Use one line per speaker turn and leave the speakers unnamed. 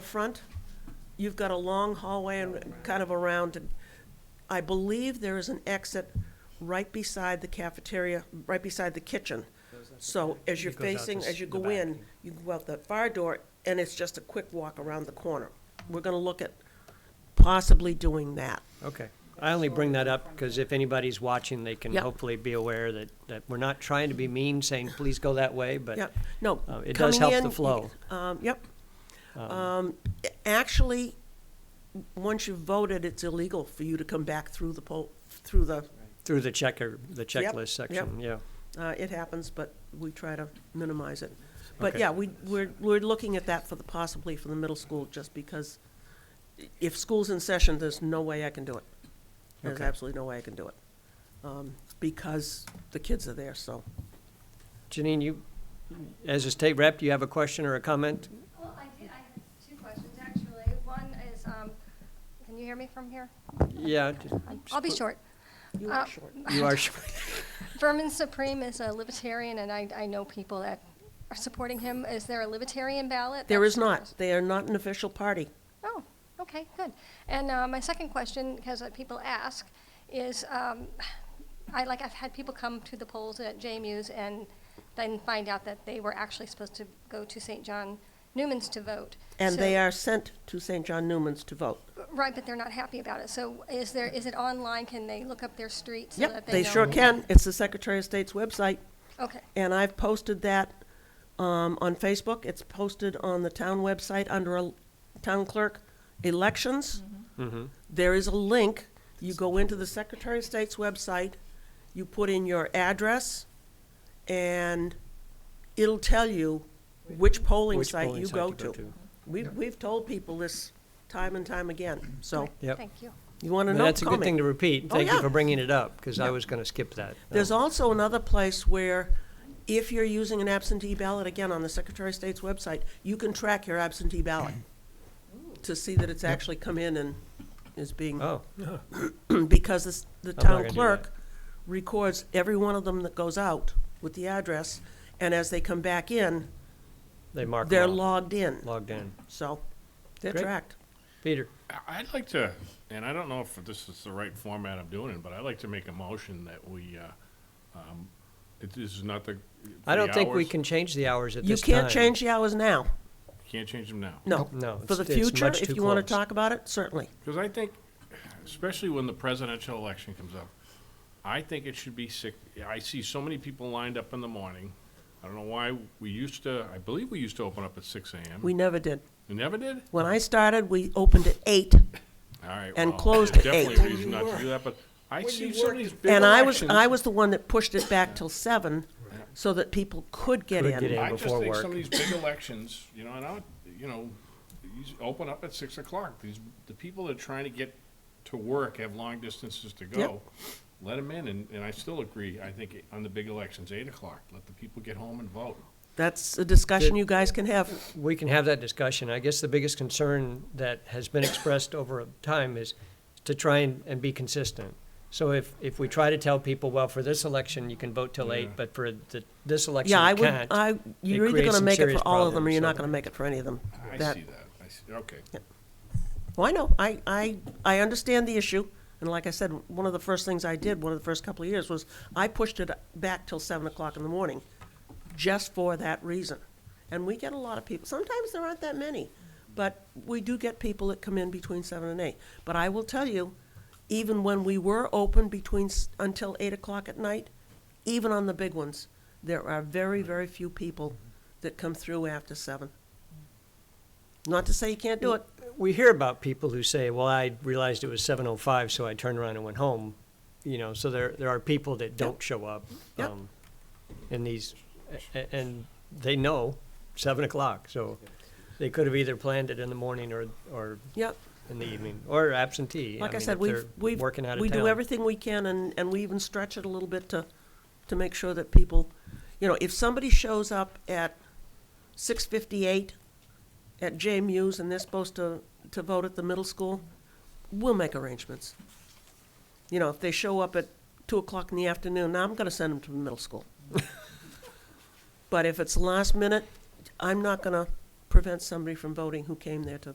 front, you've got a long hallway and kind of around. and I believe there is an exit right beside the cafeteria, right beside the kitchen. So as you're
It goes out
facing,
this-
as you
the
go
back.
in, you go out the fire door, and it's just a quick walk around the corner. We're gonna look at possibly doing that.
Okay. I only bring that up because if anybody's watching, they can
Yep.
hopefully be aware that, that we're not trying to be mean, saying, please go that way, but
Yep, no.
uh, it does
coming
help
in,
the
you-
flow.
Um, yep. Um, actually, once you've voted, it's illegal for you to come back through the poll, through the,
through the checker, the
Yep,
checklist section, yeah.
uh, it happens, but we try to minimize it. But
Okay.
yeah, we, we're, we're looking at that for the, possibly for the middle school, just because if school's in session, there's no way I can do it. There's
Okay.
absolutely no way I can do it. Um, because the kids are there, so.
Janine, you, as a state rep, do you have a question or a comment?
Well, I did, I have two questions, actually. One is, um, can you hear me from here?
Yeah.
I'll be short.
You
Uh,
are short.
You are sure.
Vermin Supreme is a libertarian, and I, I know people that are supporting him. Is there a libertarian ballot?
There
That's
is not. They are not an official party.
Oh, okay, good. And uh, my second question, because people ask, is um, I like I've had people come to the polls at JMU's and then find out that they were actually supposed to go to St. John Newman's to vote.
And
So-
they are sent to St. John Newman's to vote.
Right, but they're not happy about it. So is there, is it online? Can they look up their street so that
Yep,
they
they
know?
sure can. It's the Secretary of State's website,
Okay,
and I've posted that um, on Facebook. It's posted on the town website under a town clerk elections.
Mm-hmm.
There is a link. You go into the Secretary of State's website, you put in your address, and it'll tell you which polling
Which
site
polling
you
site
go to. We've, we've told people this time and time again, so
Yep.
thank you.
you want to
Well,
know,
That's a good
comment.
thing to repeat.
Oh,
Thank you
yeah.
for bringing it up, because I was going to skip that.
There's
Um,
also another place where if you're using an absentee ballot, again, on the Secretary of State's website, you can track your absentee ballot to see that it's actually come in and is being,
Oh,
because this- the
not gonna
town
do that.
clerk records every one of them that goes out with the address, and as they come back in,
they marked
they're
off,
logged in,
logged in.
so they're
Great.
tracked.
Peter,
I- I'd like to, and I don't know if this is the right format I'm doing it, but I'd like to make a motion that we, uh, um, it- this is not the.
I don't think we
hours.
can change the hours at
You
this time.
can't change the hours now,
Can't change them now.
no.
No,
For
it's-
the
it's
future,
much
if
too
you want to
close.
talk about it, certainly.
Because I think, especially when the presidential election comes up, I think it should be six, I see so many people lined up in the morning. I don't know why, we used to, I believe we used to open up at six AM.
We never did.
You never did?
When I started, we opened at eight,
All right.
And
well,
closed
there's
at eight.
Definitely a reason not to do that, but I see some of these big
And I was,
elections-
I was the one that pushed it back till seven, so that people could get
Could get
in.
in.
I just
before
think
work.
some of these big elections, you know, and I, would- you know, these open up at six o'clock. These, the people that are trying to get to work have long distances to go. Let them in, and, and I still agree, I think, on the big elections, eight o'clock, let the people get home and vote.
That's a discussion you guys can have.
we can have that discussion. I guess the biggest concern that has been expressed over time is to try and, and be consistent. So if, if we try to tell people, well, for this election, you can vote till eight,
Yeah.
but for the, this election,
Yeah, I
you
would,
can't.
I, you're either
creates
gonna
some
make it
serious
for all of them, or
problems,
you're not
so-
gonna make it for any of them.
I
That-
see that. I see, okay.
Well, I know, I, I, I understand the issue, and like I said, one of the first things I did, one of the first couple of years, was I pushed it back till seven o'clock in the morning, just for that reason. And we get a lot of people, sometimes there aren't that many, but we do get people that come in between seven and eight. But I will tell you, even when we were open between, s- until eight o'clock at night, even on the big ones, there are very, very few people that come through after seven. Not to say you can't do it,
We hear about people who say, well, I realized it was seven oh five, so I turned around and went home. You know, so there, there are people that don't show up.
Yep.
um, In these, a- a- and they know seven o'clock, so they could have either planned it in the morning or, or
yep.
in the evening, or absentee.
Like I
mean,
said,
if
we've,
they're
we've,
working out of
we do
town.
everything we can, and, and we even stretch it a little bit to, to make sure that people, you know, if somebody shows up at six fifty-eight at JMU's and they're supposed to, to vote at the middle school, we'll make arrangements. You know, if they show up at two o'clock in the afternoon, now I'm gonna send them to the middle school. But if it's last minute, I'm not gonna prevent somebody from voting who came there to